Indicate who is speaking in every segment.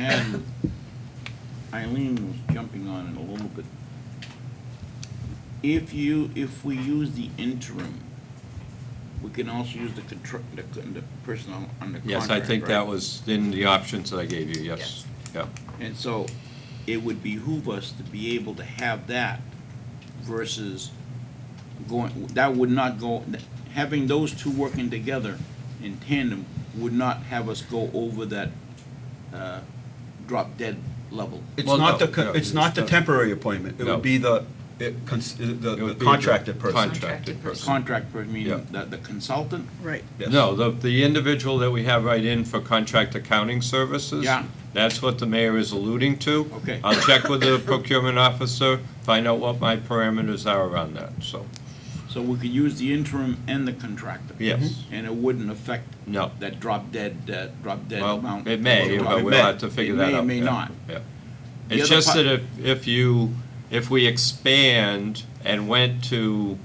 Speaker 1: had, Eileen was jumping on it a little bit. If you, if we use the interim, we can also use the contra, the, the person on, on the contract,
Speaker 2: Yes, I think that
Speaker 1: right?
Speaker 2: was in the options that I gave you, yes. Yeah,
Speaker 1: And so it would behoove us to be able to have that versus going, that would not go, having those two working together in tandem would not have us go over that, uh, drop dead level.
Speaker 3: It's
Speaker 2: Well,
Speaker 3: not
Speaker 2: no,
Speaker 3: the, co-
Speaker 2: no,
Speaker 3: it's not the
Speaker 2: it's not.
Speaker 3: temporary appointment. It
Speaker 2: No.
Speaker 3: would be the, it cons- the-
Speaker 2: It would
Speaker 3: the
Speaker 2: be the
Speaker 3: contracted person.
Speaker 2: Contracted
Speaker 4: Contracted
Speaker 2: person.
Speaker 1: Contract, per-
Speaker 2: Yeah.
Speaker 1: meaning the, the consultant?
Speaker 4: Right.
Speaker 3: Yes.
Speaker 2: No, the, the individual that we have right in for contract accounting services.
Speaker 1: Yeah.
Speaker 2: That's what the mayor is alluding to.
Speaker 1: Okay.
Speaker 2: I'll check with the procurement officer, find out what my parameters are around that, so,
Speaker 1: So we could use the interim and the contractor?
Speaker 2: yes.
Speaker 1: And it wouldn't affect
Speaker 2: No.
Speaker 1: that drop dead, uh, drop dead
Speaker 2: Well,
Speaker 1: amount?
Speaker 2: it may,
Speaker 1: Well,
Speaker 2: but
Speaker 1: it
Speaker 2: we'll
Speaker 1: may.
Speaker 2: have to figure
Speaker 1: It
Speaker 2: that
Speaker 1: may,
Speaker 2: out.
Speaker 1: It may
Speaker 2: yeah,
Speaker 1: not.
Speaker 2: yeah.
Speaker 1: The
Speaker 2: It's
Speaker 1: other
Speaker 2: just
Speaker 1: part-
Speaker 2: that if, if you, if we expand and went to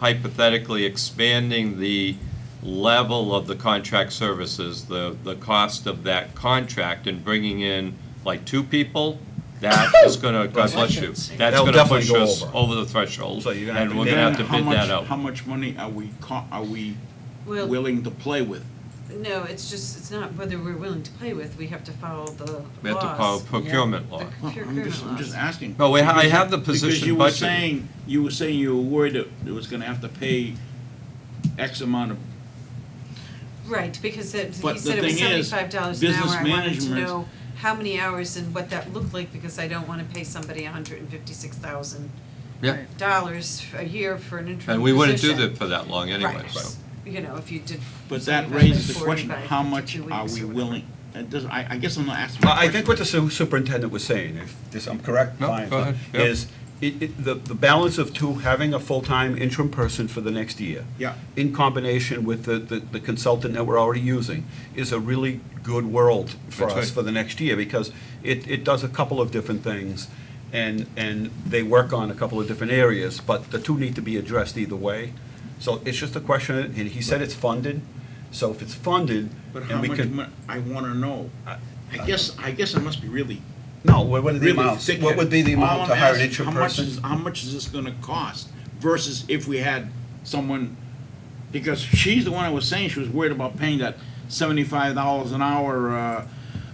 Speaker 2: hypothetically expanding the level of the contract services, the, the cost of that contract and bringing in like two people, that is gonna, God bless you, that's
Speaker 3: That'll
Speaker 2: gonna
Speaker 3: definitely
Speaker 2: push
Speaker 3: go
Speaker 2: us
Speaker 3: over.
Speaker 2: over the threshold.
Speaker 3: So you're gonna have
Speaker 2: And
Speaker 3: to
Speaker 2: we're
Speaker 3: bid
Speaker 2: gonna have to
Speaker 1: Then how
Speaker 2: bid
Speaker 1: much-
Speaker 2: that
Speaker 1: How
Speaker 2: out.
Speaker 1: much money are we, co- are we
Speaker 4: Well,
Speaker 1: willing to play with?
Speaker 4: no, it's just, it's not whether we're willing to play with, we have to follow the
Speaker 2: We have to follow
Speaker 4: laws.
Speaker 2: procurement law.
Speaker 4: The
Speaker 1: Well, I'm just, I'm
Speaker 4: procurement
Speaker 1: just
Speaker 4: laws.
Speaker 1: asking.
Speaker 2: No, we ha- I
Speaker 1: Because-
Speaker 2: have the position
Speaker 1: Because you were
Speaker 2: budgeted.
Speaker 1: saying, you were saying you were worried that it was gonna have to pay X amount of,
Speaker 4: Right, because it,
Speaker 1: But
Speaker 4: he
Speaker 1: the
Speaker 4: said it was
Speaker 1: thing is,
Speaker 4: seventy-five dollars an hour,
Speaker 1: business
Speaker 4: I wanted to
Speaker 1: management-
Speaker 4: know how many hours and what that looked like, because I don't wanna pay somebody hundred and fifty-six thousand
Speaker 2: Yeah,
Speaker 4: dollars a year for an interim position.
Speaker 2: and we wouldn't do that for that long anyway,
Speaker 4: Right.
Speaker 2: so.
Speaker 4: You know, if you did.
Speaker 1: but that
Speaker 4: something like
Speaker 1: raises the
Speaker 4: 40
Speaker 1: question,
Speaker 4: by
Speaker 1: how much
Speaker 4: 52
Speaker 1: are
Speaker 4: weeks
Speaker 1: we
Speaker 4: or whatever.
Speaker 1: willing? It doesn't, I, I guess I'm not asking. my
Speaker 3: I I think what
Speaker 1: question.
Speaker 3: the su- superintendent was saying, if this, I'm correct,
Speaker 2: No,
Speaker 3: fine,
Speaker 2: go ahead, yeah.
Speaker 3: is it, it, the, the balance of two, having a full-time interim person for the next year.
Speaker 1: Yeah.
Speaker 3: In combination with the, the the consultant that we're already using, is a really good world for
Speaker 2: That's
Speaker 3: us
Speaker 2: right.
Speaker 3: for the next year, because it, it does a couple of different things, and, and they work on a couple of different areas, but the two need to be addressed either way. So it's just a question, and he said it's funded, so if it's funded,
Speaker 1: But
Speaker 3: and
Speaker 1: how
Speaker 3: we
Speaker 1: much,
Speaker 3: could.
Speaker 1: mon- I wanna know. I guess, I guess I must be really,
Speaker 3: No, what what are the
Speaker 1: really
Speaker 3: amounts?
Speaker 1: thick.
Speaker 3: What would be the
Speaker 1: All
Speaker 3: amount
Speaker 1: I'm
Speaker 3: to hire an
Speaker 1: asking,
Speaker 3: interim
Speaker 1: how much
Speaker 3: person?
Speaker 1: is- How much is this gonna cost versus if we had someone, because she's the one I was saying, she was worried about paying that seventy-five dollars an hour, uh,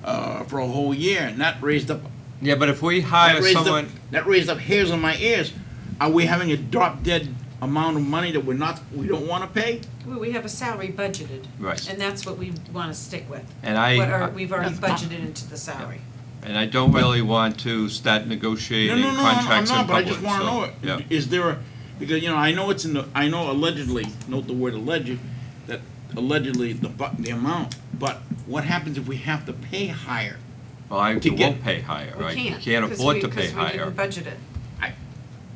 Speaker 1: uh, for a whole year, and that raised up
Speaker 2: Yeah, but if we
Speaker 1: That
Speaker 2: hire
Speaker 1: raised up-
Speaker 2: someone,
Speaker 1: That raised up hairs on my ears. Are we having a drop dead amount of money that we're not, we don't wanna pay?
Speaker 4: Well, we have a salary budgeted.
Speaker 2: Right.
Speaker 4: And that's what we wanna stick with.
Speaker 2: And I-
Speaker 4: What are, we've already
Speaker 1: That's-
Speaker 4: budgeted into the salary.
Speaker 2: And I don't really want to start
Speaker 1: No,
Speaker 2: negotiating
Speaker 1: no, no, I'm- I'm
Speaker 2: contracts in
Speaker 1: not, but I
Speaker 2: public,
Speaker 1: just wanna know,
Speaker 2: so, yeah.
Speaker 1: it. is there a, because, you know, I know it's in the, I know allegedly, note the word alleged, that allegedly the bu, the amount, but what happens if we have to pay higher?
Speaker 2: Well, I
Speaker 1: to get-
Speaker 2: won't pay higher,
Speaker 4: We
Speaker 2: I
Speaker 4: can't.
Speaker 2: can't
Speaker 4: 'cause
Speaker 2: afford
Speaker 4: we-
Speaker 2: to pay
Speaker 4: 'cause we
Speaker 2: higher.
Speaker 4: didn't budget it.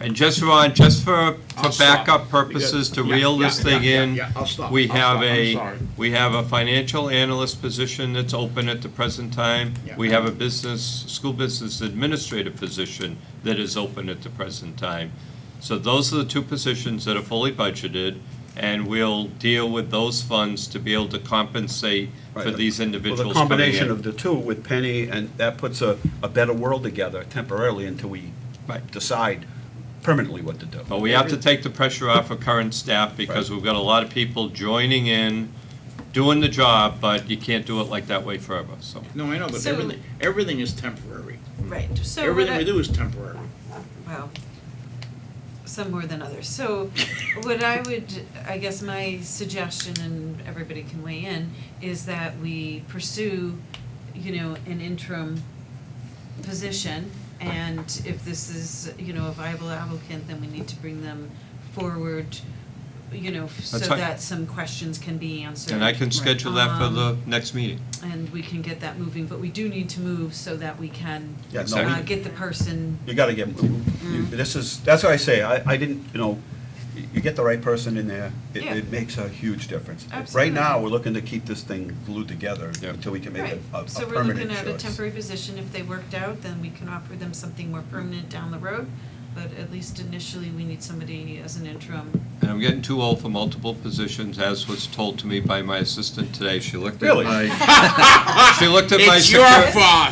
Speaker 2: And just for, on- just for, for
Speaker 1: I'll stop,
Speaker 2: backup purposes,
Speaker 1: because-
Speaker 2: to
Speaker 1: yeah,
Speaker 2: reel
Speaker 1: yeah,
Speaker 2: this
Speaker 1: yeah,
Speaker 2: thing
Speaker 1: yeah,
Speaker 2: in,
Speaker 1: yeah, I'll stop,
Speaker 2: we
Speaker 1: I'll
Speaker 2: have
Speaker 1: stop, I'm
Speaker 2: a,
Speaker 1: sorry.
Speaker 2: we have a financial analyst position that's open at the present time.
Speaker 1: Yeah.
Speaker 2: We have a business, school business administrator position that is open at the present time. So those are the two positions that are fully budgeted, and we'll deal with those funds to be able to compensate for
Speaker 3: Right.
Speaker 2: these
Speaker 3: Well,
Speaker 2: individuals
Speaker 3: the
Speaker 2: coming in.
Speaker 3: combination of the two with Penny, and that puts a, a better world together temporarily until we
Speaker 2: Right.
Speaker 3: decide permanently what to do.
Speaker 2: But we have to take the pressure off of current staff because we've got a lot of people joining in, doing the job, but you can't do it like that way forever, so.
Speaker 1: No, I know, but
Speaker 4: So-
Speaker 1: everything, everything is temporary.
Speaker 4: Right, so.
Speaker 1: Everything
Speaker 4: what
Speaker 1: we
Speaker 4: I-
Speaker 1: do is temporary.
Speaker 4: Well, some more than others. So what I would, I guess my suggestion, and everybody can weigh in, is that we pursue, you know, an interim position. And if this is, you know, a viable applicant, then we need to bring them forward, you know, so
Speaker 2: That's fine.
Speaker 4: that some questions can be answered.
Speaker 2: And I can schedule that for
Speaker 4: Um,
Speaker 2: the next meeting.
Speaker 4: And we can get that moving, but we do need to move so that we can
Speaker 3: Yeah,
Speaker 2: no, we-
Speaker 4: uh, get the person
Speaker 3: You gotta get,
Speaker 4: Mm.
Speaker 3: you- this is, that's what I say, I, I didn't, you know, y- you get the right person in there, it,
Speaker 4: Yeah.
Speaker 3: it makes a huge difference. Right
Speaker 4: Absolutely.
Speaker 3: now, we're looking to keep this thing glued together
Speaker 2: Yeah.
Speaker 3: until we can make
Speaker 4: Right.
Speaker 3: a, a a
Speaker 4: So we're
Speaker 3: permanent
Speaker 4: looking at a
Speaker 3: choice.
Speaker 4: temporary position, if they worked out, then we can offer them something more permanent down the road. But at least initially, we need somebody as an interim.
Speaker 2: And I'm getting too old for multiple positions, as was told to me by my assistant today. She looked at
Speaker 3: Really?
Speaker 2: my, she looked at my.
Speaker 1: It's your
Speaker 2: secure-
Speaker 1: fault.